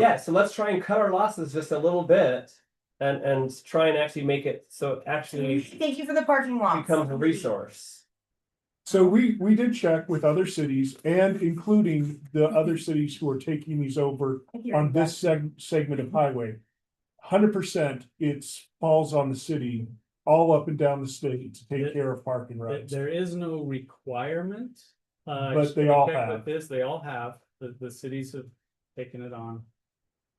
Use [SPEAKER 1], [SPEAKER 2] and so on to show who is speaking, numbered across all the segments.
[SPEAKER 1] Yeah, so let's try and cut our losses just a little bit and, and try and actually make it so it actually
[SPEAKER 2] Thank you for the parking lot.
[SPEAKER 1] becomes a resource.
[SPEAKER 3] So we, we did check with other cities and including the other cities who are taking these over on this seg- segment of highway. Hundred percent, it's falls on the city, all up and down the state to take care of parking
[SPEAKER 4] There-
[SPEAKER 3] rights.
[SPEAKER 4] there is no requirement. Uh,
[SPEAKER 3] But
[SPEAKER 4] just
[SPEAKER 3] they
[SPEAKER 4] to
[SPEAKER 3] all
[SPEAKER 4] check with
[SPEAKER 3] have.
[SPEAKER 4] This, they all have, the, the cities have taken it on.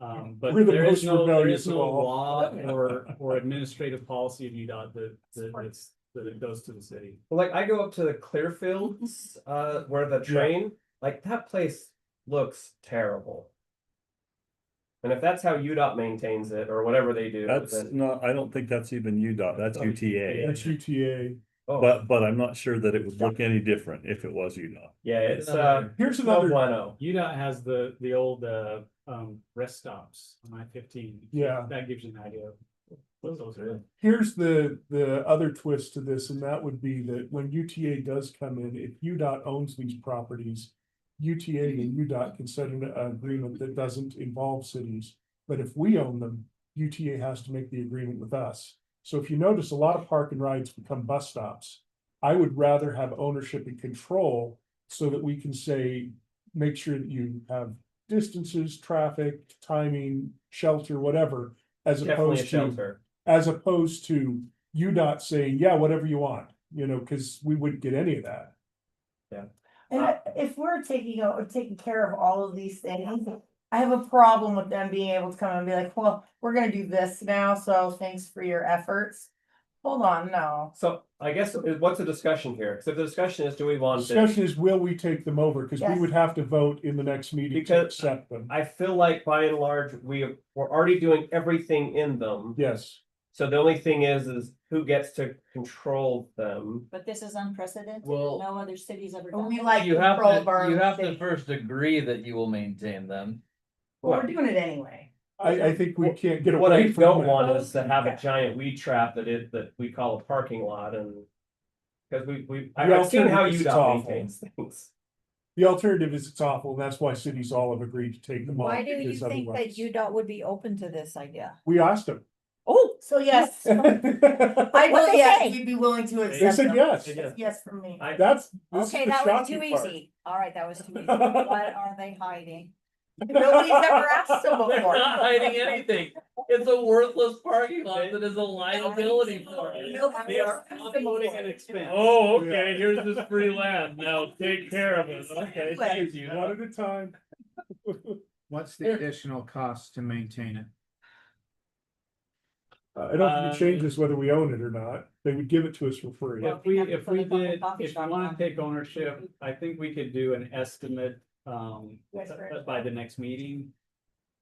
[SPEAKER 4] Um, but
[SPEAKER 3] We're the
[SPEAKER 4] there is
[SPEAKER 3] most
[SPEAKER 4] no, there
[SPEAKER 3] rebellious
[SPEAKER 4] is
[SPEAKER 3] of
[SPEAKER 4] no
[SPEAKER 3] all.
[SPEAKER 4] law or, or administrative policy of UDOT that, that it's, that it goes to the city.
[SPEAKER 1] Like I go up to the Clearfields, uh, where the train, like that place looks terrible. And if that's how UDOT maintains it or whatever they do,
[SPEAKER 5] That's
[SPEAKER 1] then,
[SPEAKER 5] not, I don't think that's even UDOT, that's
[SPEAKER 1] Oh,
[SPEAKER 5] UTA,
[SPEAKER 3] That's UTA.
[SPEAKER 1] oh,
[SPEAKER 5] but, but I'm not sure that it would look any different if it was UDOT.
[SPEAKER 1] yeah, it's, uh, oh.
[SPEAKER 3] Here's
[SPEAKER 1] no
[SPEAKER 3] another,
[SPEAKER 1] bueno.
[SPEAKER 4] UDOT has the, the old, uh, um, rest stops on I fifteen.
[SPEAKER 3] Yeah.
[SPEAKER 4] That gives you an idea. of what those are.
[SPEAKER 3] here's the, the other twist to this, and that would be that when UTA does come in, if UDOT owns these properties. UTA and UDOT can set an agreement that doesn't involve cities, but if we own them, UTA has to make the agreement with us. So if you notice, a lot of park and rides become bus stops. I would rather have ownership and control so that we can say, make sure that you have distances, traffic, timing, shelter, whatever. As
[SPEAKER 1] Definitely a
[SPEAKER 3] opposed to
[SPEAKER 1] shelter.
[SPEAKER 3] as opposed to you not saying, yeah, whatever you want, you know, because we wouldn't get any of that.
[SPEAKER 2] And
[SPEAKER 3] uh,
[SPEAKER 2] I- if we're taking, o- taking care of all of these things, I have a problem with them being able to come and be like, well, we're gonna do this now, so thanks for your efforts. Hold on, no.
[SPEAKER 1] So I guess it- what's the discussion here? So the discussion is, do we want it?
[SPEAKER 3] Discussion is, will we take them over? Because we
[SPEAKER 2] Yes.
[SPEAKER 3] would have to vote in the next meeting to
[SPEAKER 1] Because-
[SPEAKER 3] accept them.
[SPEAKER 1] I feel like by and large, we we're already doing everything in them.
[SPEAKER 3] Yes,
[SPEAKER 1] So the only thing is, is who gets to control them?
[SPEAKER 6] But this is unprecedented,
[SPEAKER 7] Well-
[SPEAKER 6] no other city's ever
[SPEAKER 8] Oh,
[SPEAKER 6] done.
[SPEAKER 2] We
[SPEAKER 6] it.
[SPEAKER 2] like
[SPEAKER 7] You have
[SPEAKER 2] control of
[SPEAKER 7] to,
[SPEAKER 2] our
[SPEAKER 7] you
[SPEAKER 2] own
[SPEAKER 7] have to
[SPEAKER 2] city.
[SPEAKER 7] first agree that you will maintain them.
[SPEAKER 2] We're doing it anyway.
[SPEAKER 3] I, I think we can't get
[SPEAKER 1] What I
[SPEAKER 3] away
[SPEAKER 1] don't
[SPEAKER 3] from that.
[SPEAKER 1] want is to have a giant weed trap that it, that we call a parking lot and. Cause we, we, I-
[SPEAKER 3] The
[SPEAKER 1] I've seen how
[SPEAKER 3] alternative is
[SPEAKER 1] UDOT
[SPEAKER 3] awful.
[SPEAKER 1] maintains things.
[SPEAKER 3] The alternative is it's awful. and That's why cities all have agreed to take them off.
[SPEAKER 8] Why do you
[SPEAKER 3] because
[SPEAKER 8] think that
[SPEAKER 3] otherwise-
[SPEAKER 8] UDOT would be open to this idea?
[SPEAKER 3] We asked them.
[SPEAKER 8] Oh,
[SPEAKER 2] So yes,
[SPEAKER 3] They
[SPEAKER 2] I
[SPEAKER 8] What'd
[SPEAKER 2] would,
[SPEAKER 8] they
[SPEAKER 2] yes,
[SPEAKER 8] say?
[SPEAKER 2] we'd be willing to accept
[SPEAKER 3] said
[SPEAKER 2] them.
[SPEAKER 3] yes.
[SPEAKER 1] They did.
[SPEAKER 2] Yes, from me.
[SPEAKER 1] I,
[SPEAKER 3] That's. this is
[SPEAKER 8] okay,
[SPEAKER 3] the
[SPEAKER 8] that was
[SPEAKER 3] shocking
[SPEAKER 8] too
[SPEAKER 3] part.
[SPEAKER 8] easy. All right, that was too easy. What are they hiding?
[SPEAKER 2] Nobody's ever asked them
[SPEAKER 7] They're
[SPEAKER 2] before.
[SPEAKER 7] not hiding anything. It's a worthless parking lot that is a liability for it.
[SPEAKER 4] They are promoting an expense.
[SPEAKER 7] Oh,
[SPEAKER 3] okay,
[SPEAKER 7] here's this free land. Now take care of it. Okay,
[SPEAKER 2] thank
[SPEAKER 7] you.
[SPEAKER 3] One at a time.
[SPEAKER 9] What's the additional cost to maintain it?
[SPEAKER 3] Uh, I don't think
[SPEAKER 4] Uh,
[SPEAKER 3] it changes whether we own it or not. They would give it to us for free.
[SPEAKER 4] If we, if we did, if you wanna take ownership, I think we could do an estimate, um,
[SPEAKER 2] Yes, sir.
[SPEAKER 4] by the next meeting.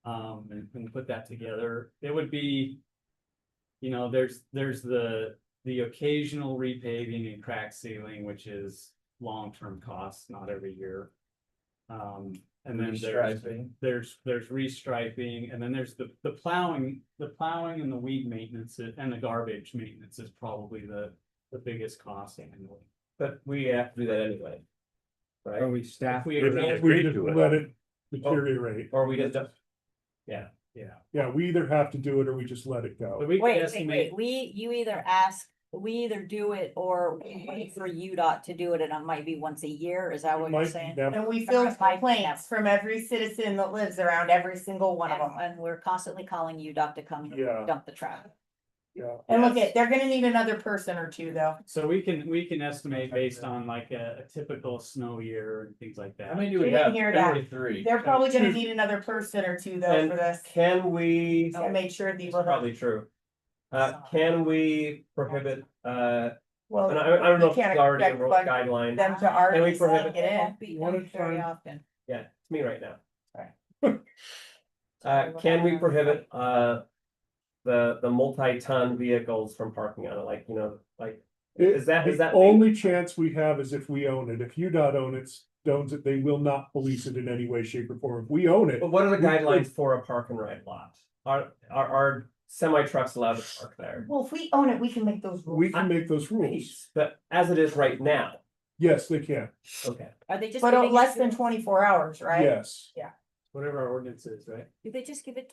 [SPEAKER 4] Um, and, and put that together, it would be. You know, there's, there's the, the occasional repaving and crack sealing, which is long-term costs, not every year. Um, and then there's,
[SPEAKER 7] Restriping.
[SPEAKER 4] there's, there's restriping, and then there's the, the plowing, the plowing and the weed maintenance and the garbage maintenance is probably the, the biggest cost annually.
[SPEAKER 1] but we have to do that anyway.
[SPEAKER 9] Are
[SPEAKER 1] Right?
[SPEAKER 9] we
[SPEAKER 1] If
[SPEAKER 9] staffed?
[SPEAKER 1] we
[SPEAKER 5] If
[SPEAKER 1] agree,
[SPEAKER 3] We
[SPEAKER 5] Agreed
[SPEAKER 3] just
[SPEAKER 5] to it.
[SPEAKER 3] let it deteriorate.
[SPEAKER 1] or we just,
[SPEAKER 4] Yeah.
[SPEAKER 3] Yeah, we either have to do it or we just let it
[SPEAKER 4] But
[SPEAKER 3] go.
[SPEAKER 4] we could
[SPEAKER 8] Wait, wait,
[SPEAKER 4] estimate,
[SPEAKER 8] wait, we, you either ask, we either do it or we wait for UDOT to do it and it might be once a year, is that what you're
[SPEAKER 3] Might-
[SPEAKER 8] saying?
[SPEAKER 3] that-
[SPEAKER 2] And we feel complaints from every citizen that lives around every single one of
[SPEAKER 8] And,
[SPEAKER 2] them.
[SPEAKER 8] and we're constantly calling UDOT to come
[SPEAKER 3] Yeah.
[SPEAKER 8] dump the trash.
[SPEAKER 3] Yeah,
[SPEAKER 2] And look
[SPEAKER 4] Yes.
[SPEAKER 2] at, they're gonna need another person or two though.
[SPEAKER 4] so we can, we can estimate based on like a, a typical snow year and things like
[SPEAKER 7] How
[SPEAKER 4] that.
[SPEAKER 7] many do we
[SPEAKER 2] We didn't
[SPEAKER 7] have?
[SPEAKER 2] hear that.
[SPEAKER 7] Thirty-three.
[SPEAKER 2] They're probably gonna need another person or two though
[SPEAKER 1] And
[SPEAKER 2] for this.
[SPEAKER 1] can we?
[SPEAKER 2] To make sure
[SPEAKER 1] It's
[SPEAKER 2] these are,
[SPEAKER 1] probably true. Uh, can we prohibit, uh,
[SPEAKER 2] well,
[SPEAKER 1] and I, I don't know
[SPEAKER 2] we
[SPEAKER 1] if it's
[SPEAKER 2] can't
[SPEAKER 1] already a
[SPEAKER 2] expect
[SPEAKER 1] rule
[SPEAKER 2] like
[SPEAKER 1] guideline.
[SPEAKER 2] them to already
[SPEAKER 1] prohibit-
[SPEAKER 2] get in.
[SPEAKER 8] It
[SPEAKER 3] One
[SPEAKER 8] won't
[SPEAKER 3] at
[SPEAKER 8] be
[SPEAKER 3] a
[SPEAKER 8] done very
[SPEAKER 3] time.
[SPEAKER 8] often.
[SPEAKER 1] Yeah, it's me right now.
[SPEAKER 2] Right.
[SPEAKER 1] Uh, can we prohibit, uh, the, the multi-ton vehicles from parking on it, like, you know, like, is that, is
[SPEAKER 3] The
[SPEAKER 1] that?
[SPEAKER 3] only chance we have is if we own it. If UDOT own it, owns it, they will not police it in any way, shape or form. If we own it,
[SPEAKER 1] But what are the
[SPEAKER 3] we could-
[SPEAKER 1] guidelines for a park and ride lot? Are, are, are semi trucks allowed to park there?
[SPEAKER 2] Well, if we own it, we can make those
[SPEAKER 3] we
[SPEAKER 2] rules.
[SPEAKER 3] can make those rules.
[SPEAKER 1] But as it is right now,
[SPEAKER 3] Yes, they can.
[SPEAKER 1] okay,
[SPEAKER 8] Are they just?
[SPEAKER 2] But
[SPEAKER 8] giving
[SPEAKER 2] uh,
[SPEAKER 8] it
[SPEAKER 2] less
[SPEAKER 8] to
[SPEAKER 2] than
[SPEAKER 8] us?
[SPEAKER 2] twenty-four hours, right?
[SPEAKER 3] Yes.
[SPEAKER 10] whatever our ordinance is, right?
[SPEAKER 1] Do they just give it